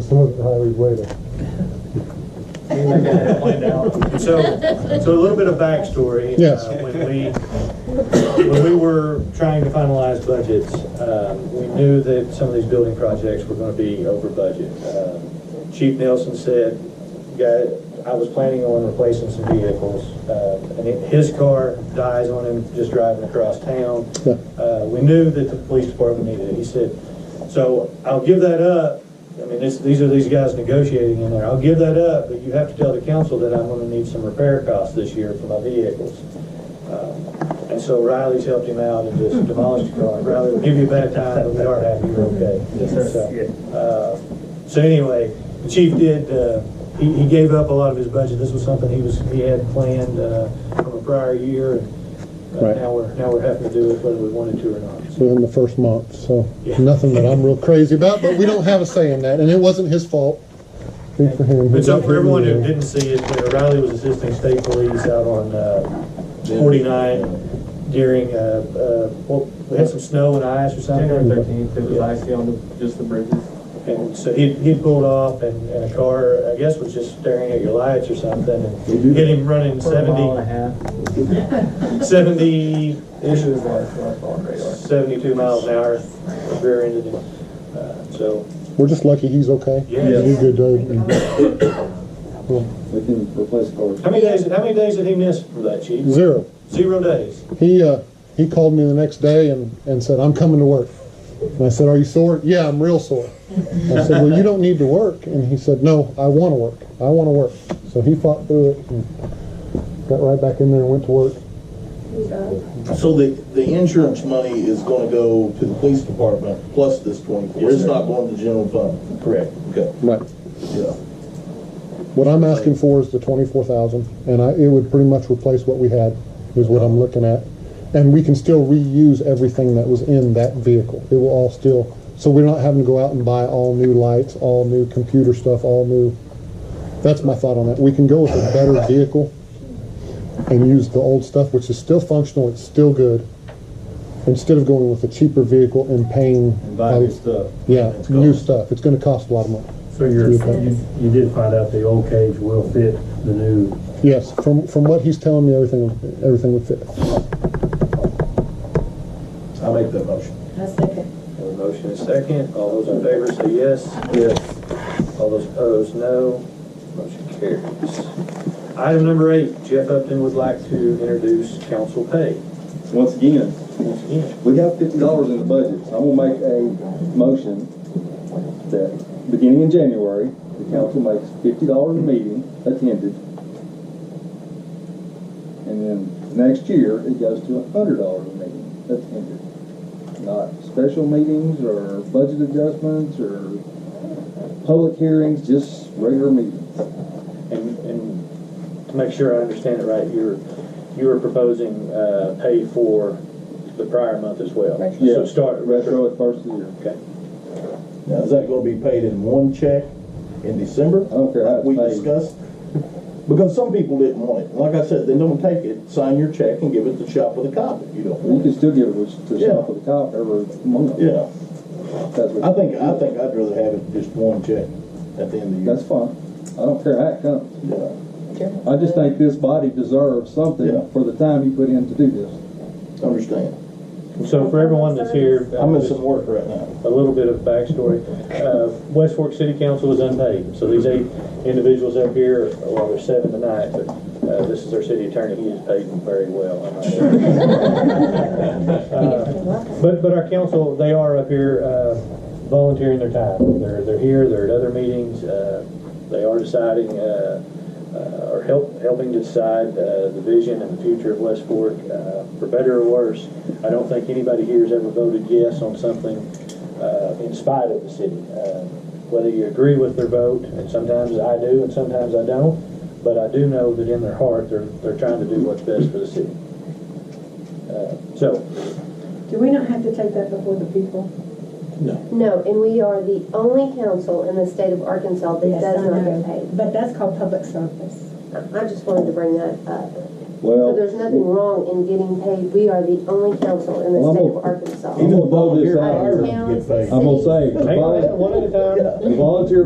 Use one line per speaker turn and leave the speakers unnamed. Some of the highways later.
So, so a little bit of backstory.
Yes.
Uh, When we, when we were trying to finalize budgets, um, we knew that some of these building projects were gonna be over budget. Um, Chief Nelson said, "Guy, I was planning on replacing some vehicles, uh, and it- his car dies on him just driving across town."
Yeah.
Uh, we knew that the police department needed it. He said, so I'll give that up. I mean, this, these are these guys negotiating in there. I'll give that up, but you have to tell the council that I'm gonna need some repair costs this year for my vehicles. Um, And so Riley's helped him out and just demolished the car. Riley, we'll give you a bad time, but we are happy you're okay. So, uh, So anyway, the chief did, uh, he, he gave up a lot of his budget. This was something he was, he had planned, uh, from a prior year. and uh,
Right.
Now we're, now we're having to do it whether we wanted to or not. So
within the first month, so
Yeah.
nothing that I'm real crazy about, but we don't have a say in that, and it wasn't his fault. Good for him.
But so for everyone who didn't see it, uh, Riley was assisting state police out on uh, 49 during, uh, uh, well, we had some snow and ice or something.
January thirteenth, it was icy on the, just the bridges.
And so he, he pulled off and, and a car, I guess, was just staring at your lights or something and hit him running
For a mile and
70,
a half.
70,
It was last, last on radar.
72 miles an hour, rear ended him. Uh, So,
We're just lucky he's okay.
Yeah.
He's good, dude.
We can replace cars.
how many days, how many days did he miss for that, chief?
Zero.
Zero days.
He, uh, he called me the next day and, and said, I'm coming to work. And I said, are you sore? Yeah, I'm real sore. I said, well, you don't need to work. And he said, no, I want to work. I want to work. So he fought through it and got right back in there and went to work.
So the, the insurance money is gonna go to the police department plus this twenty-four,
Yes,
it's
sir.
not going to general fund?
Correct.
Okay,
Right.
yeah.
What I'm asking for is the twenty-four thousand, and I, it would pretty much replace what we had, is what I'm looking at. And we can still reuse everything that was in that vehicle. It will all still, so we're not having to go out and buy all new lights, all new computer stuff, all new. That's my thought on that. We can go with a better vehicle and use the old stuff, which is still functional, it's still good. Instead of going with a cheaper vehicle and paying. Yeah, new stuff. It's gonna cost a lot of money.
So you're, you, you did find out the old cage will fit the new,
Yes, from, from what he's telling me, everything, everything would fit.
I'll make that motion.
I second.
Have a motion and a second. All those in favor say yes.
Yes.
All those opposed, no. Motion carries. Item number eight, Jeff Upton would like to introduce council pay.
Once again,
Once again,
we have fifty dollars in the budget, so I'm gonna make a motion that, beginning in January, the council makes fifty dollars a meeting attended. And then next year, it goes to hundred dollars a meeting attended. Not special meetings or budget adjustments or public hearings, just regular meetings.
And, and to make sure I understand it right, you're, you were proposing, uh, pay for the prior month as well. So start at retro.
Retro at first of the year.
Okay.
Now, is that gonna be paid in one check in December?
I don't care how it's
We
paid.
discussed, because some people didn't want it, like I said, they don't take it, sign your check and give it to shop with a cop if you don't
You
want it.
can still give it to shop with the cop every month.
Yeah,
That's what-
I think, I think I'd rather have it just one check at the end of
That's fine. I don't care how it comes.
the year.
I just think this body deserves
Yeah.
something for the time you put in to do this.
Yeah, understand,
So for everyone that's here. uh,
I'm in some work right now.
a little bit of backstory. Uh, West Fork City Council is unpaid, so these eight individuals up here, well, there's seven tonight, but uh, this is our city attorney, he is paid very well. I might add. Uh, But, but our council, they are up here uh, volunteering their time. They're, they're here, they're at other meetings, uh, they are deciding, uh, uh, or help, helping to decide uh, the vision and the future of West Fork, uh, for better or worse. I don't think anybody here has ever voted yes on something uh, in spite of the city. Uh, Whether you agree with their vote, and sometimes I do and sometimes I don't, but I do know that in their heart, they're, they're trying to do what's best for the city. Uh, So,
Do we not have to take that before the people?
No, and we are the only council in the state of Arkansas that
Yes,
does
I
not
know.
get paid.
But that's called public service.
I just wanted to bring that up. So
Well,
there's nothing wrong in getting paid. We are the only council in the
Well, I'm
state
a-
of Arkansas.
I'm gonna blow this
Volunteer
out.
hires
Towns,
Get paid.
I'm gonna say, the
hang on,
vol-
one at a time.
the volunteer